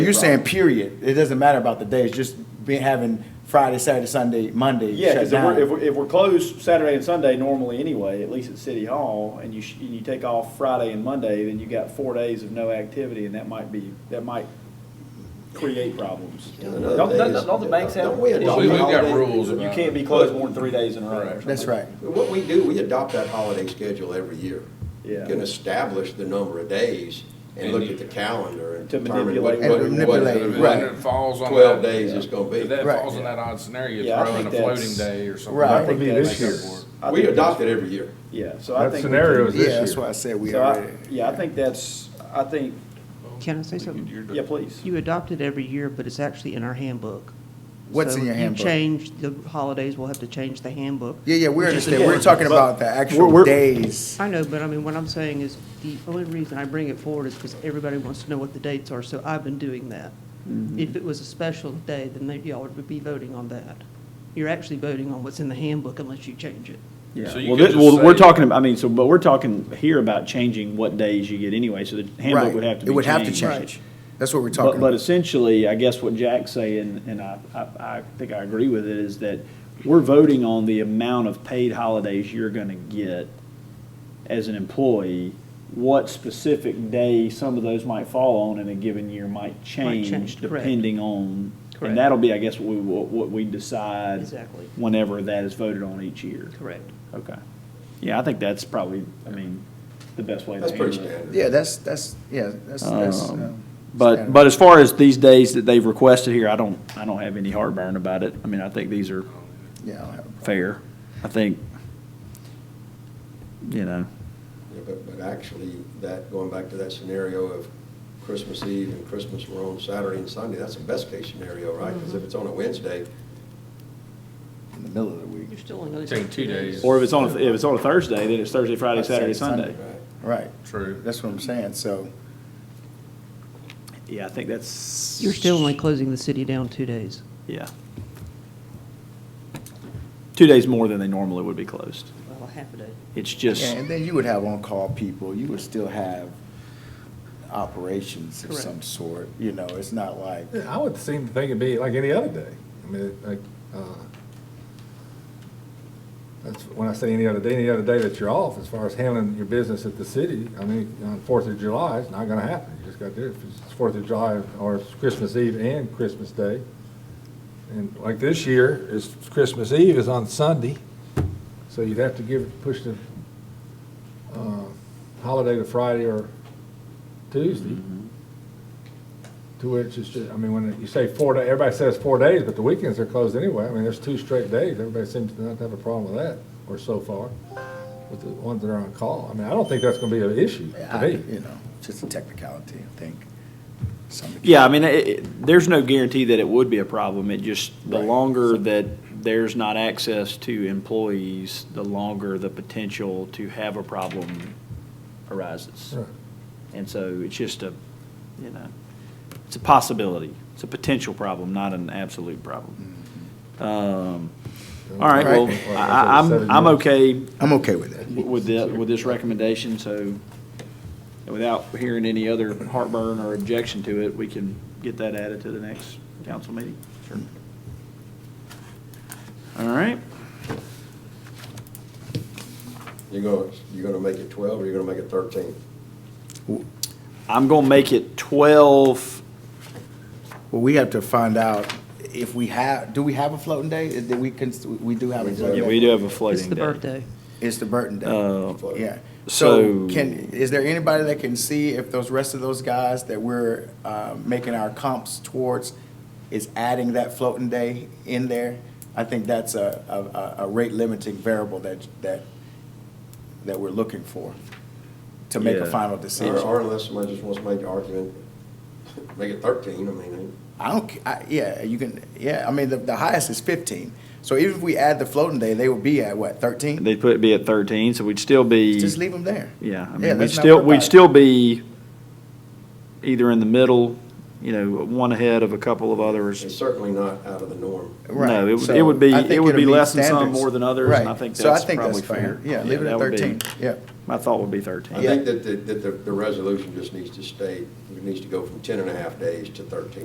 You're saying period. It doesn't matter about the days, just be having Friday, Saturday, Sunday, Monday Yeah, shut because if we're, if down. we're, if we're closed Saturday and Sunday normally anyway, at least at City Hall, and you, sh- and you take off Friday and Monday, then you got four days of no activity, and that might be, that might create problems. Another Don't- thing don't- is- don't the banks have- Don't we We- adopt We- We've got holiday- rules You about. can't be closed more than three days in a row. or something. That's right. What we do, we adopt that holiday schedule every year. Yeah. Can establish the number of days and And look you- at the calendar and To determine manipulate. what, And what, manipulate, what, If right. what it falls on. twelve that- days is gonna If be. that Right. falls in that odd scenario, Yeah, I throw in think a that's- floating day or something. Right. I I think think this that's- year- I We think adopt that's- it every year. Yeah, so I That think. we scenario can- is this Yeah, that's year. why I said we so I- already. Yeah, I think that's, I think, Can I say something? You're- yeah, please. You adopt it every year, but it's actually in our handbook. What's in your handbook? So if you change, the holidays, we'll have to change the handbook. Yeah, yeah, we which is understand. We're important. talking But about the we're- actual we're- days. I know, but I mean, what I'm saying is, the only reason I bring it forward is because everybody wants to know what the dates are, so I've been doing that. Mm-hmm. If it was a special day, then they- y'all would be voting on that. You're actually voting on what's in the handbook unless you change it. So Yeah, you well, could this, just well, we're say- talking, about- I mean, so, but we're talking here about changing what days you get anyway, so the handbook Right. would have to be changed. It would have to changed. change. That's what we're But, talking but about. essentially, I guess what Jack's saying, and I, I, I think I agree with it, is that we're voting on the amount of paid holidays you're gonna get as an employee, what specific day some of those might fall on in a given year might change change, correct. depending on, Correct. and that'll be, I guess, what we, what what we decide. Exactly. Whenever that is voted on each year. Correct. Okay. Yeah, I think that's probably, I mean, the best way to That's handle it. pretty standard. Yeah, that's, that's, yeah, that's, that's. Um, um, But, standard. but as far as these days that they've requested here, I don't, I don't have any heartburn about it. I mean, I think these are Yeah, I don't have a problem. fair. I think, you know, Yeah, But, but actually, that, going back to that scenario of Christmas Eve and Christmas were on Saturday and Sunday, that's the best case scenario, right? Because if it's on a Wednesday, in the middle of the week. You're still only. Take two days. or if it's on, a- if it's on a Thursday, then it's Thursday, Friday, Saturday, Sunday. right? Right. True. That's what I'm saying, so. Yeah, I think that's. You're still only closing the city down two days. Yeah. Two days more than they normally would be closed. Well, a half a day. It's just, Yeah, and then you would have on-call people, you would still have operations of Correct. some sort, you know, it's not like, Yeah, I would seem to think it'd be like any other day. I mean, like, uh, that's, when I say any other day, any other day that you're off, as far as handling your business at the city, I mean, on Fourth of July, it's not gonna happen. You just gotta do it. If it's Fourth of July or it's Christmas Eve and Christmas Day. And like this year, it's Christmas Eve is on Sunday, so you'd have to give, push the, uh, holiday to Friday or Tuesday. To which is just, I mean, when you say four day, everybody says four days, but the weekends are closed anyway. I mean, there's two straight days. Everybody seems to not have a problem with that, or so far, with the ones that are on call. I mean, I don't think that's gonna be an issue to I- me. you know, just a technicality, I think. Some- Yeah, I mean, it- it, there's no guarantee that it would be a problem. It just, the Right. longer that there's not access to employees, the longer the potential to have a problem arises. Right. And so it's just a, you know, it's a possibility. It's a potential problem, not an absolute problem. Um, All right, well, Right. I, I- I'm, I'm okay I'm okay with it. with the, with this recommendation, so without hearing any other heartburn or objection to it, we can get that added to the next council meeting. Sure. All right, You're gonna, you're gonna make it twelve, or you're gonna make it thirteen? I'm gonna make it twelve, Well, we have to find out if we have, do we have a floating day? Is that we can, we do have a We do. floating yeah, day. we do have a It's floating the day. birthday. It's the Burton Day, Uh, yeah. So so- can, is there anybody that can see if those rest of those guys that we're, uh, making our comps towards is adding that floating day in there? I think that's a, a, a- a rate limiting variable that, that, that we're looking for to make a Yeah. final Or, decision. or unless somebody just wants to make the argument, make it thirteen, I mean, I don't, ca- I, yeah, you can, yeah, I mean, the, the highest is fifteen. So even if we add the floating day, they would be at what, thirteen? They'd put, be at thirteen, so we'd still be. Just leave them there. Yeah, Yeah, I mean, we'd let's not still, worry about we'd it. still be either in the middle, you know, one ahead of a couple of others. it's certainly not out of the norm. Right. No, it would- So it would be- I think it would it'll be less than some, standards. more than others, and I Right. think So that's think probably fair. Yeah, Yeah, leave it that at would be- thirteen, yeah. My thought would be I 13. think that, the- that the, the resolution just needs to state, it needs to go from 10 and a half days to 13.